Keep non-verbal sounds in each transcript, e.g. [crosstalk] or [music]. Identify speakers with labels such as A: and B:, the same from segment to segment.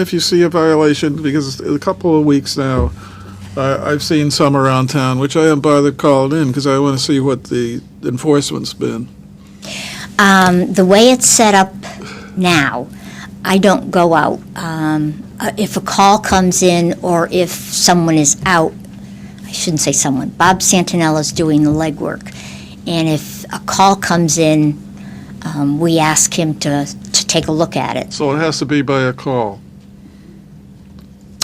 A: if you see a violation, because a couple of weeks now, I, I've seen some around town, which I haven't bothered calling in, because I want to see what the enforcement's been.
B: Um, the way it's set up now, I don't go out. Um, uh, if a call comes in or if someone is out, I shouldn't say someone, Bob Santinella's doing the legwork. And if a call comes in, um, we ask him to, to take a look at it.
A: So it has to be by a call.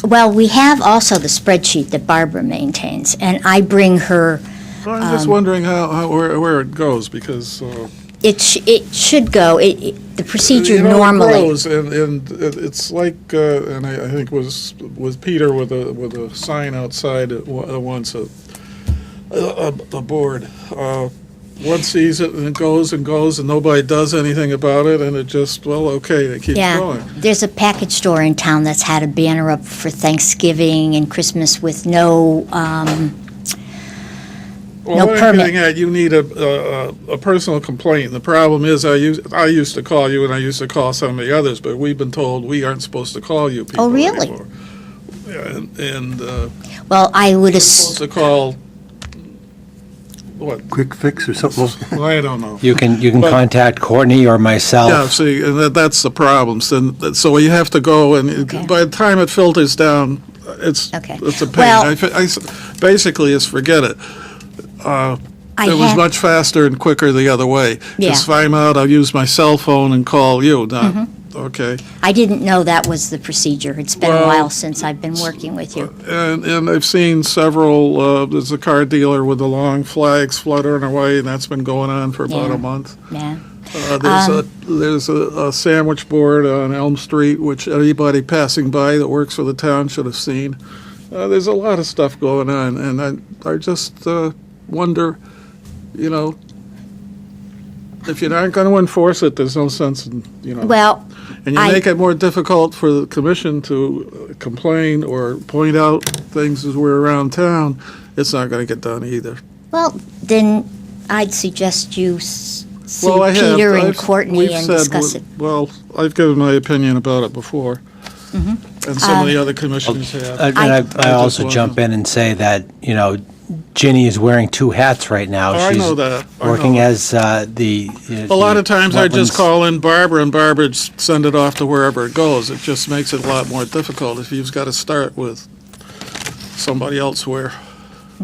B: Well, we have also the spreadsheet that Barbara maintains, and I bring her,
A: Well, I'm just wondering how, how, where, where it goes, because, uh,
B: it, sh- it should go, it, it- the procedure
A: you know, it
B: normally.
A: grows, And, and it- it's like, uh, and I, I think was, was Peter with a, with a sign outside at wa- uh, once, a, a, a board. Uh, One sees it and it goes and goes and nobody does anything about it and it just, well, okay, it keeps
B: Yeah,
A: going.
B: there's a package store in town that's had a banner up for Thanksgiving and Christmas with no, um,
A: Well,
B: No
A: what I'm
B: permit.
A: getting at, you need a, a, a- a personal complaint. The problem is, I used, I used to call you and I used to call some of the others, but we've been told we aren't supposed to call you people
B: Oh, really?
A: anymore. Yeah, And, and, uh,
B: well, I would, ass-
A: supposed to call, what,
C: quick fix or something.
A: Well, I don't know.
D: You can, you can
A: But-
D: contact Courtney or
A: Yeah,
D: myself.
A: see, and that, that's the problems, and that- so you have to go, and
B: Okay.
A: it- by the time it filters down, it's,
B: Okay.
A: it's a pain.
B: Well-
A: I fe- I s- Basically, it's forget it. Uh,
B: I
A: It was
B: have,
A: much faster and quicker the other way.
B: Yeah.
A: Just find out, I'll use my cell phone and call you, not,
B: Mm-hmm.
A: okay?
B: I didn't know that was the procedure. It's been a
A: Well,
B: while since I've been working with you.
A: And, and I've seen several, uh, there's a car dealer with the long flags fluttering away, and that's been going on for about
B: Yeah.
A: a month.
B: Yeah,
A: Uh, There's a,
B: Um,
A: there's a a sandwich board on Elm Street, which anybody passing by that works for the town should have seen. Uh, There's a lot of stuff going on, and I, I just uh, wonder, you know, if you're not going to enforce it, there's no sense in, you know.
B: well,
A: And you
B: I-
A: make it more difficult for the commission to uh, complain or point out things as we're around town, it's not going to get done either.
B: well, then I'd suggest you s- see
A: Well, I have-
B: Peter and
A: I've-
B: Courtney
A: we've
B: and
A: said
B: discuss it.
A: w- Well, I've given my opinion about it before,
B: Mm-hmm.
A: and some of the other commissioners
D: Uh,
A: have.
D: And I,
A: I
D: I also
A: just
D: jump in and say that, you know, Ginny is wearing two hats right now.
A: Oh, I know that.
D: She's
A: I know
D: working
A: that.
D: as uh, the. uh,
A: A lot
D: the
A: of times I just
D: wetlands-
A: call in Barbara, and Barbara s- send it off to wherever it goes. It just makes it a lot more difficult if you've got to start with somebody elsewhere.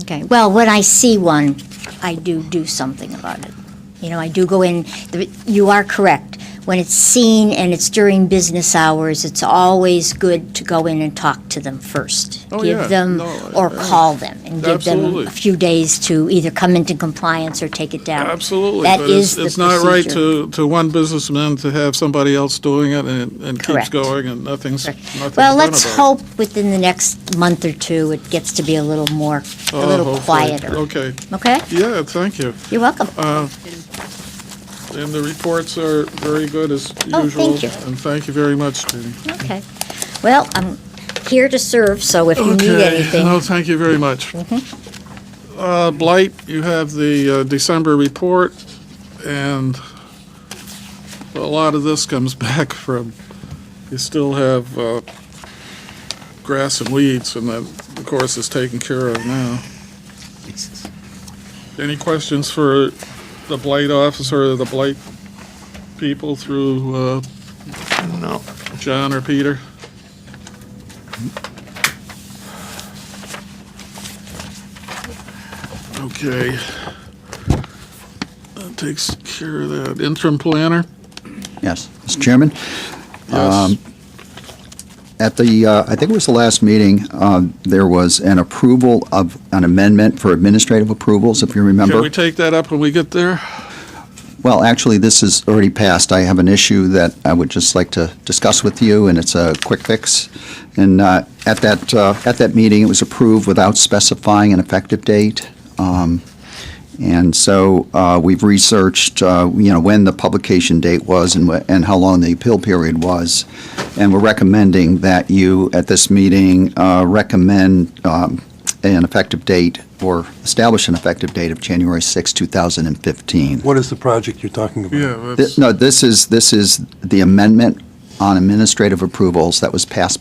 B: Okay, well, when I see one, I do do something about it. You know, I do go in, the- you are correct. When it's seen and it's during business hours, it's always good to go in and talk to them first.
A: Oh, yeah.
B: Give them,
A: No, I-
B: or
A: I-
B: call them, and give them
A: Absolutely.
B: a few days to either come into compliance or take it down.
A: Absolutely.
B: That
A: but it's-
B: is the
A: It's not right
B: procedure.
A: to, to one businessman to have somebody else doing it and and keeps
B: Correct.
A: going and nothing's, nothing's done about it.
B: Well, let's hope within the next month or two, it gets to be a little more, a
A: Oh,
B: little
A: hopefully.
B: quieter.
A: Okay.
B: Okay?
A: Yeah, thank you.
B: You're welcome.
A: And the reports are very good as
B: Oh,
A: usual.
B: thank you.
A: And thank you very much, Jenny.
B: Okay. Well, I'm here to serve, so if you need
A: Okay,
B: anything.
A: no, thank you very much. Uh, Blight, you have the uh, December report, and a lot of this comes [laughs] back from, you still have uh, grass and weeds, and that, of course, is taken care of now. Any questions for the Blight officer, or the Blight people through uh,
E: No.
A: John or Peter? Okay. That takes care of that. Interim planner?
F: Yes, Mr. Chairman,
A: Yes.
F: at the, uh, I think it was the last meeting, uh, there was an approval of an amendment for administrative approvals, if you
A: Can
F: remember.
A: we take that up when we get there?
F: Well, actually, this is already passed. I have an issue that I would just like to discuss with you, and it's a quick fix. And uh, at that, uh, at that meeting, it was approved without specifying an effective date. Um, And so uh, we've researched, uh, you know, when the publication date was and wh- and how long the appeal period was. And we're recommending that you, at this meeting, uh, recommend um, an effective date or establish an effective date of January 6, 2015.
C: What is the project you're talking about?
A: Yeah,
F: Th- No, this is, this is the amendment on administrative approvals that was passed